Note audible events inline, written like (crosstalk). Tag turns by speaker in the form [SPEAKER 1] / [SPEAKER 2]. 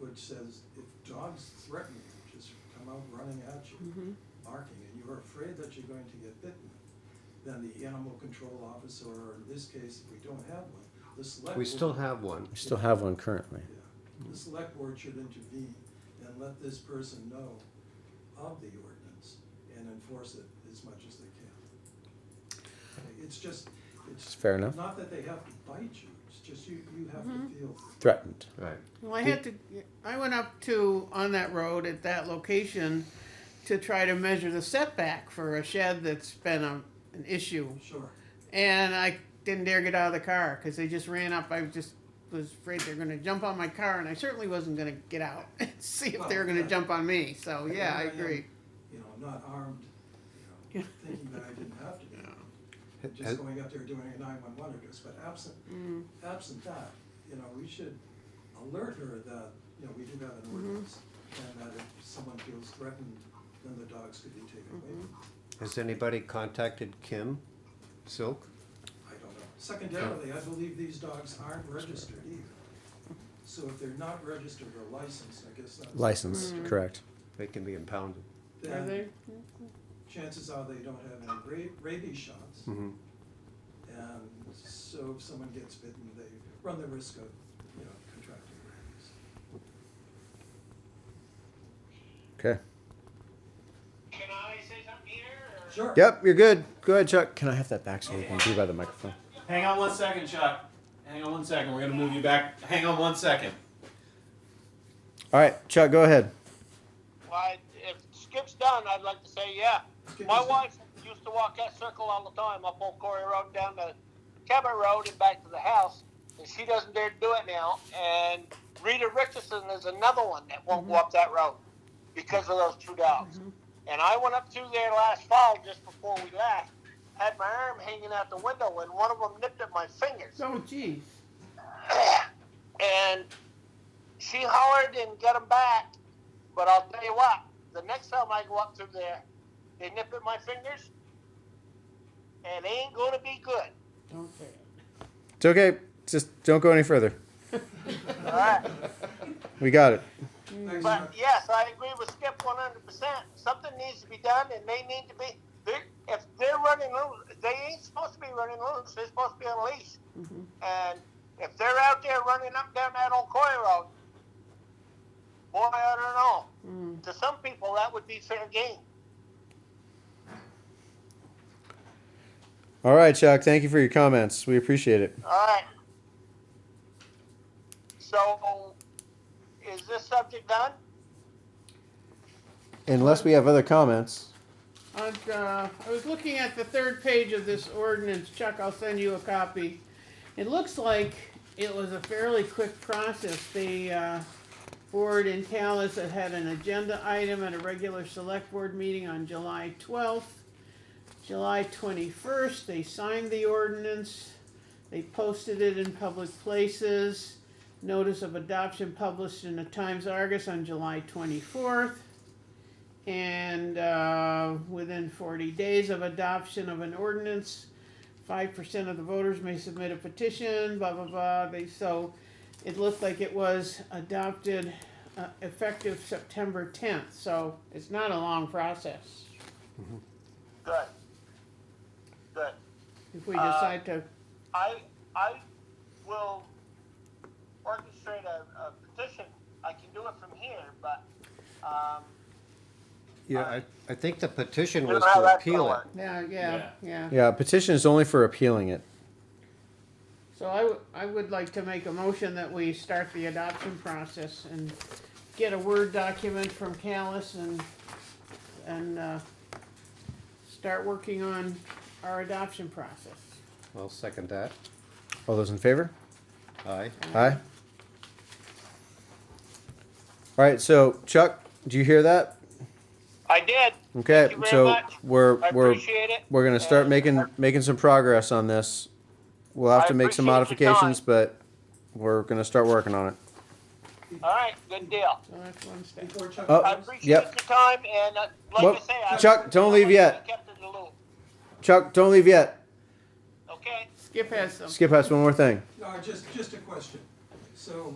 [SPEAKER 1] language says if dogs threaten you, just come out running at you,
[SPEAKER 2] Mhm.
[SPEAKER 1] barking, and you're afraid that you're going to get bitten, then the animal control officer, or in this case, if we don't have one, the select.
[SPEAKER 3] We
[SPEAKER 1] board-
[SPEAKER 3] still have one.
[SPEAKER 4] We still have one currently.
[SPEAKER 1] Yeah, the select board should intervene and let this person know of the ordinance and enforce it as much as they can. It's just,
[SPEAKER 4] It's
[SPEAKER 1] it's
[SPEAKER 4] fair enough.
[SPEAKER 1] not that they have to bite you, it's just you, you have to feel.
[SPEAKER 4] Threatened.
[SPEAKER 3] Right.
[SPEAKER 2] Well, I had to, I went up to, on that road at that location to try to measure the setback for a shed that's been a, an issue.
[SPEAKER 1] Sure,
[SPEAKER 2] And I didn't dare get out of the car because they just ran up. I just was afraid they're going to jump on my car, and I certainly wasn't going to get out (laughs) and see if they were going to jump on me. So, yeah, I agree.
[SPEAKER 1] you know, I'm not armed, you know, thinking that I didn't have to be, armed.
[SPEAKER 3] Has-
[SPEAKER 1] just going up there doing a nine-one-one address, but absent,
[SPEAKER 2] Mm.
[SPEAKER 1] absent that, you know, we should alert her that, you know, we do have an
[SPEAKER 2] Mm-hmm.
[SPEAKER 1] ordinance, and that if someone feels threatened, then the dogs could be taken away. from
[SPEAKER 2] Mm-hmm.
[SPEAKER 1] them.
[SPEAKER 3] Has anybody contacted Kim Silk?
[SPEAKER 1] I don't know. Secondarily, I believe these dogs aren't registered either. So if they're not registered or licensed, I guess that's.
[SPEAKER 4] License, correct.
[SPEAKER 3] They can be impounded.
[SPEAKER 2] Are
[SPEAKER 1] Then
[SPEAKER 2] they?
[SPEAKER 1] chances are they don't have any ra- rabies shots. And so if someone gets bitten, they run the risk of, you know, contracting rabies.
[SPEAKER 4] Okay.
[SPEAKER 5] Can I say something here? Or?
[SPEAKER 1] Sure.
[SPEAKER 4] Yep, you're good. Go ahead, Chuck. Can I have that back so we can be by the microphone?
[SPEAKER 6] Hang on one second, Chuck. Hang on one second. We're gonna move you back. Hang on one second.
[SPEAKER 4] All right, Chuck, go ahead.
[SPEAKER 5] Why, if Skip's done, I'd like to say, yeah.
[SPEAKER 1] Skip
[SPEAKER 5] My
[SPEAKER 1] is done.
[SPEAKER 5] wife used to walk that circle all the time up Old Quarry Road down to Cabot Road and back to the house, and she doesn't dare to do it now. And Rita Richardson is another one that won't
[SPEAKER 1] Mm-hmm.
[SPEAKER 5] go up that road because of those two dogs. And I went up through there last fall just before we left, had my arm hanging out the window, and one of them nipped at my fingers.
[SPEAKER 2] Oh, geez.
[SPEAKER 5] and she hollered and got him back. But I'll tell you what, the next time I go up through there, they nip at my fingers, and they ain't gonna be good.
[SPEAKER 2] Don't say it.
[SPEAKER 4] It's okay. Just don't go any further.
[SPEAKER 5] All right.
[SPEAKER 4] We got it.
[SPEAKER 1] Thanks, Chuck.
[SPEAKER 5] But yes, I agree with Skip one hundred percent. Something needs to be done, and they need to be. they're- If they're running loose, they ain't supposed to be running loose. They're supposed to be on a leash. And if they're out there running up down that old coy road, boy, I don't know. To some people, that would be fair game.
[SPEAKER 4] All right, Chuck. Thank you for your comments. We appreciate it.
[SPEAKER 5] All right. So, is this subject done?
[SPEAKER 4] Unless we have other comments.
[SPEAKER 2] On, uh, I was looking at the third page of this ordinance, Chuck, I'll send you a copy. It looks like it was a fairly quick process, the, uh, board in Callis had had an agenda item at a regular select board meeting on July twelfth. July twenty-first, they signed the ordinance, they posted it in public places. Notice of adoption published in the Times Argus on July twenty-fourth. And uh, within 40 days of adoption of an ordinance, 5% of the voters may submit a petition, blah, blah, blah. They, so it looked like it was adopted uh, effective September 10th. So it's not a long process
[SPEAKER 5] Good. Good.
[SPEAKER 2] if we decide to.
[SPEAKER 5] I, I will orchestrate a, a petition. I can do it from here, but, um,
[SPEAKER 3] Yeah, I, I think the petition
[SPEAKER 5] I don't
[SPEAKER 3] was
[SPEAKER 5] know how
[SPEAKER 3] to
[SPEAKER 5] that's gonna
[SPEAKER 3] appeal it.
[SPEAKER 5] work.
[SPEAKER 2] Yeah, yeah, yeah.
[SPEAKER 4] Yeah, petition is only for appealing it.
[SPEAKER 2] So I, w- I would like to make a motion that we start the adoption process and get a Word document from Callis and, and, uh, start working on our adoption process.
[SPEAKER 3] I'll second that.
[SPEAKER 4] All those in favor?
[SPEAKER 3] Aye.
[SPEAKER 4] Aye. All right, so Chuck, do you hear that?
[SPEAKER 5] I did.
[SPEAKER 4] Okay,
[SPEAKER 5] Thank you very
[SPEAKER 4] so
[SPEAKER 5] much.
[SPEAKER 4] we're
[SPEAKER 5] I
[SPEAKER 4] we're
[SPEAKER 5] appreciate it.
[SPEAKER 4] we're gonna start
[SPEAKER 5] And
[SPEAKER 4] making making some progress on this. We'll have
[SPEAKER 5] I
[SPEAKER 4] to make some
[SPEAKER 5] appreciate your time.
[SPEAKER 4] modifications, but we're gonna start working on it.
[SPEAKER 5] All right, good deal.
[SPEAKER 2] So that's one step.
[SPEAKER 1] Before Chuck
[SPEAKER 4] Oh.
[SPEAKER 5] I
[SPEAKER 1] comes-
[SPEAKER 5] appreciate your
[SPEAKER 4] Yep.
[SPEAKER 5] time, and uh, like
[SPEAKER 4] Well,
[SPEAKER 5] I say, I.
[SPEAKER 4] Chuck, don't leave yet.
[SPEAKER 5] Kept in the loop,
[SPEAKER 4] Chuck, don't leave yet.
[SPEAKER 5] okay?
[SPEAKER 2] Skip has some.
[SPEAKER 4] Skip us one more thing.
[SPEAKER 1] Uh, just, just a question. So